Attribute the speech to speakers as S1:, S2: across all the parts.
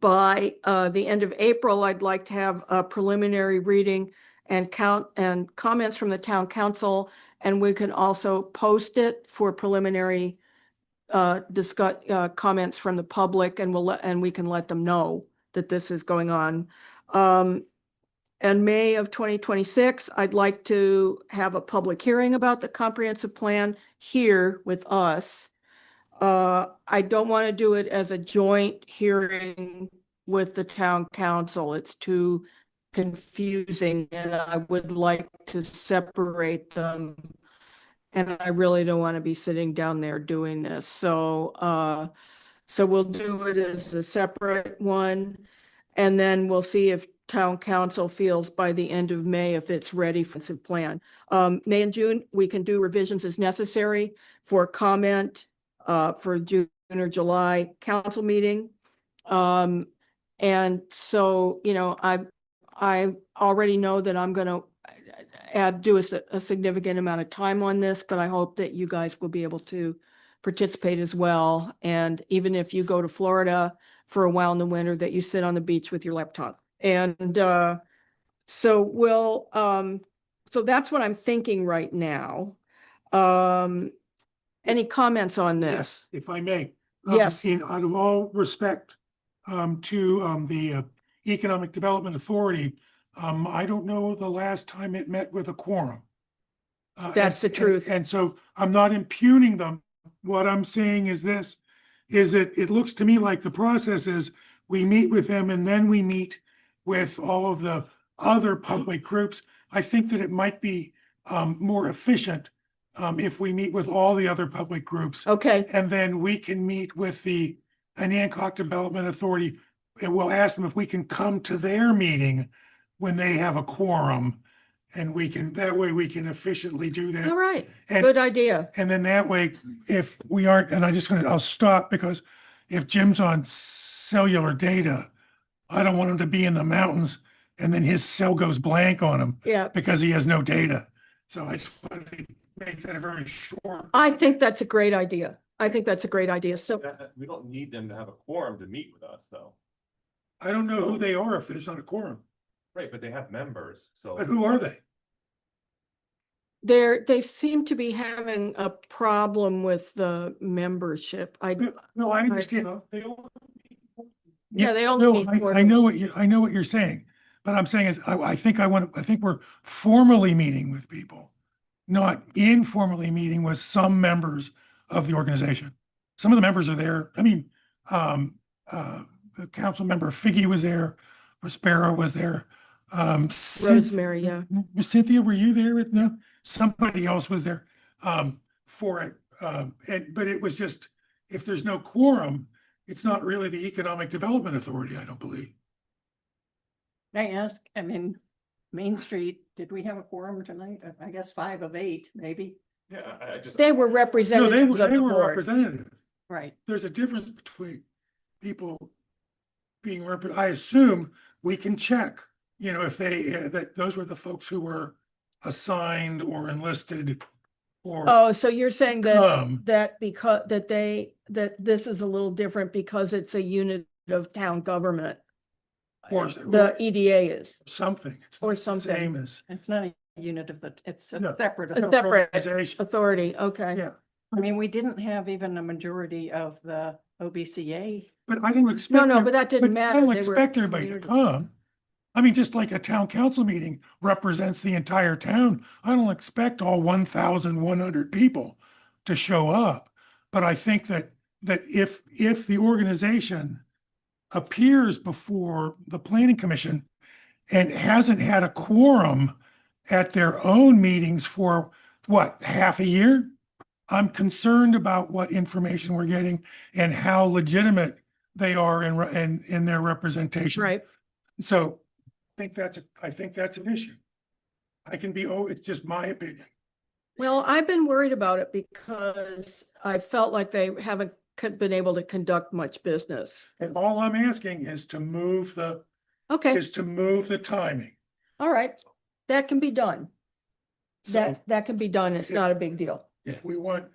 S1: by uh, the end of April, I'd like to have a preliminary reading and count and comments from the town council. And we can also post it for preliminary uh, discuss, uh, comments from the public and we'll, let- and we can let them know that this is going on. Um, and May of twenty twenty-six, I'd like to have a public hearing about the comprehensive plan here with us. Uh, I don't want to do it as a joint hearing with the town council. It's too confusing and I would like to separate them. And I really don't want to be sitting down there doing this. So, uh, so we'll do it as a separate one. And then we'll see if town council feels by the end of May if it's ready for some plan. Um, May and June, we can do revisions as necessary for comment uh, for June or July council meeting. Um, and so, you know, I, I already know that I'm gonna uh, add, do a, s- a significant amount of time on this, but I hope that you guys will be able to participate as well. And even if you go to Florida for a while in the winter, that you sit on the beach with your laptop. And, uh, so we'll, um, so that's what I'm thinking right now. Um, any comments on this?
S2: Yes, If I may. Um,
S1: Yes.
S2: In, out of all respect, um, to, um, the uh, Economic Development Authority, um, I don't know the last time it met with a quorum. Uh, and-
S1: That's the
S2: and-
S1: truth.
S2: And so I'm not impugning them. What I'm saying is this, is that it looks to me like the process is we meet with them and then we meet with all of the other public groups. I think that it might be, um, more efficient, um, if we meet with all the other public groups
S1: Okay,
S2: and then we can meet with the Anacog Development Authority. And we'll ask them if we can come to their meeting when they have a quorum. And we can, that way we can efficiently do
S1: all
S2: that.
S1: right,
S2: And,
S1: good idea.
S2: and then that way, if we aren't, and I just gonna, I'll stop because if Jim's on cellular data, I don't want him to be in the mountains and then his cell goes blank on him
S1: Yeah,
S2: because he has no data. So I just want to make that a very short.
S1: I think that's a great idea. I think that's a great idea. So,
S3: That- that- uh, We don't need them to have a quorum to meet with us, though.
S2: I don't know who they are if there's not a quorum.
S3: Right, but they have members, so.
S2: But who are they?
S1: there, they seem to be having a problem with the membership. I,
S2: No, I understand.
S3: No, they all meet.
S1: yeah, they only
S2: No,
S1: need
S2: I,
S1: four.
S2: I know what you, I know what you're saying, but I'm saying is, I, I think I want, to. I think we're formally meeting with people, not informally meeting with some members of the organization. Some of the members are there. I mean, um, uh, the council member Figgy was there, Prospero was there. Um, Cynth-
S1: Rosemary, yeah.
S2: M- Cynthia, were you there? with- No, somebody else was there, um, for it. Um, and, but it was just, if there's no quorum, it's not really the Economic Development Authority, I don't believe.
S4: May I ask, I mean, Main Street, did we have a quorum tonight? Uh, I guess five of eight, maybe,
S3: Yeah, I, I just.
S1: They were
S2: No, they,
S1: representatives
S2: were-
S1: of
S2: they
S1: the
S2: were
S1: board.
S2: representative.
S4: right?
S2: There's a difference between people being rep, I assume we can check, you know, if they, uh, that those were the folks who were assigned or enlisted or
S1: Oh, so you're saying that,
S2: come.
S1: that because, that they, that this is a little different because it's a unit of town government.
S2: Or-
S1: The EDA is,
S2: something. It's
S1: Or
S2: not the
S1: something.
S2: Same as
S4: It's not a unit of the, it's a
S2: No.
S1: a
S4: separate. authority.
S1: separate
S2: organization.
S1: authority, okay.
S2: Yeah.
S4: I mean, we didn't have even a majority of the OBCA.
S2: But I didn't expect.
S1: No, no,
S2: every-
S1: but that didn't
S2: but I
S1: matter.
S2: don't
S1: They were a
S2: expect everybody to
S1: community.
S2: come. I mean, just like a town council meeting represents the entire town, I don't expect all one thousand one hundred people to show up. But I think that, that if, if the organization appears before the planning commission and hasn't had a quorum at their own meetings for what, half a year? I'm concerned about what information we're getting and how legitimate they are in, re- in, in their representation.
S1: Right,
S2: So I think that's, a- I think that's an issue. I can be, oh, it's just my opinion.
S1: Well, I've been worried about it because I felt like they haven't co- been able to conduct much business.
S2: And all I'm asking is to move the,
S1: Okay,
S2: is to move the timing.
S1: all right, that can be done.
S2: So
S1: That, that can be done. It's
S2: If-
S1: not a big deal.
S2: we want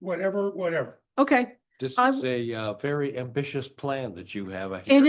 S2: whatever, whatever.
S1: Okay.
S5: This
S1: I
S5: is a uh, very ambitious plan that you have.
S1: It